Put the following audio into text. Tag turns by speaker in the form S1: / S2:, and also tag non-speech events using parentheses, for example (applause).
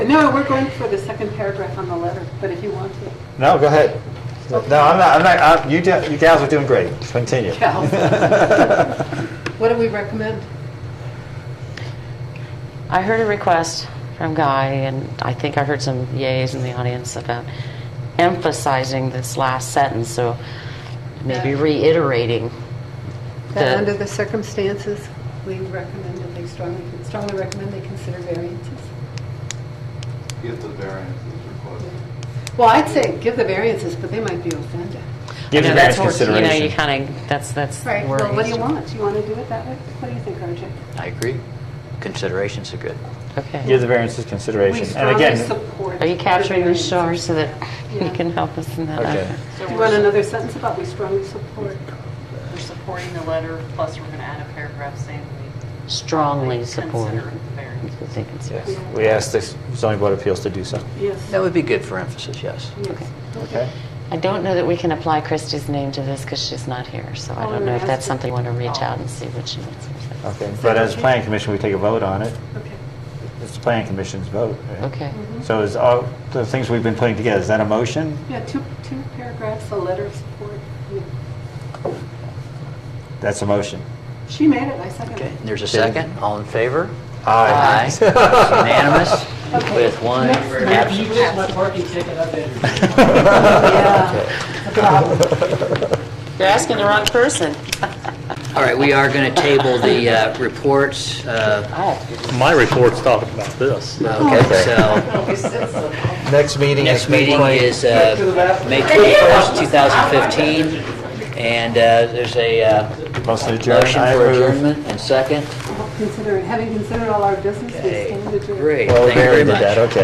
S1: No, we're going for the second paragraph on the letter, but if you want to.
S2: No, go ahead. No, I'm not, I'm not, I'm- you do- you gals are doing great. Continue.
S1: Gals.
S3: What do we recommend?
S4: I heard a request from Guy, and I think I heard some yays in the audience about emphasizing this last sentence, so maybe
S3: Yeah.
S4: reiterating
S3: That under
S4: the,
S3: the circumstances, we recommend that they strongly, strongly recommend they consider variances.
S5: Get the variances requested.
S3: Well, I'd say give the variances, but they might be offended.
S2: (laughs) Give
S4: I
S2: the
S4: know,
S2: variance
S4: that's wor- you know, you
S2: consideration.
S4: kind of, that's, that's
S3: Right,
S4: wordy.
S1: Well, what do you want? Do you want to do it that way? What do you think, RJ?
S6: I agree. Considerations are good.
S4: Okay.
S2: Give the variances
S1: We
S2: consideration. And
S1: strongly
S2: again,
S1: support.
S4: Are you capturing the
S1: variance.
S4: shore so that you
S1: Yeah.
S4: can help us in that
S2: okay.
S4: effort?
S1: Do you want another sentence about we strongly support?
S7: We're supporting the letter, plus we're going to add a paragraph saying
S4: Strongly
S7: we
S4: support.
S7: consider the variance.
S4: Because they consider-
S2: Yes, we asked the zoning board of appeals to do so.
S1: Yes.
S6: That would be good for emphasis, yes.
S1: Yes.
S2: Okay.
S4: I don't know that we can apply Christie's name to this because she's not here, so I
S1: Oh,
S4: don't know if
S1: that's
S4: that's something you want to reach
S7: Oh.
S4: out and see what she wants.
S2: Okay. But as planning commission, we take a vote on it.
S1: Okay.
S2: It's the planning commission's vote. right?
S4: Okay.
S1: Mm-hmm.
S2: So is all the things we've been putting together, is that a motion?
S1: Yeah, two, two paragraphs, a letter of support. Yeah.
S2: That's a motion.
S1: She made it, I second
S6: Okay,
S1: it.
S6: and there's a
S2: Dave?
S6: second. All in favor?
S2: (laughs)
S6: Aye.
S4: (laughs)
S6: Unanimous with one absent.
S8: You just my parking ticket up there.
S2: (laughs)
S4: You're asking the wrong person.
S6: All right, we are going to table the uh, reports. uh,
S9: My report's talking about this.
S6: Okay, so
S2: (laughs) Next meeting
S6: next meeting is uh, May 21st, 2015, and uh, there's a uh,
S2: Motion adjourned.
S6: motion
S2: I
S6: for
S2: approve.
S6: adjournment and second.
S1: Consider, having considered all our business, we
S6: Okay,
S1: stand adjourned.
S6: great,
S2: Well,
S6: thank you very
S2: buried
S6: much.
S2: that, okay.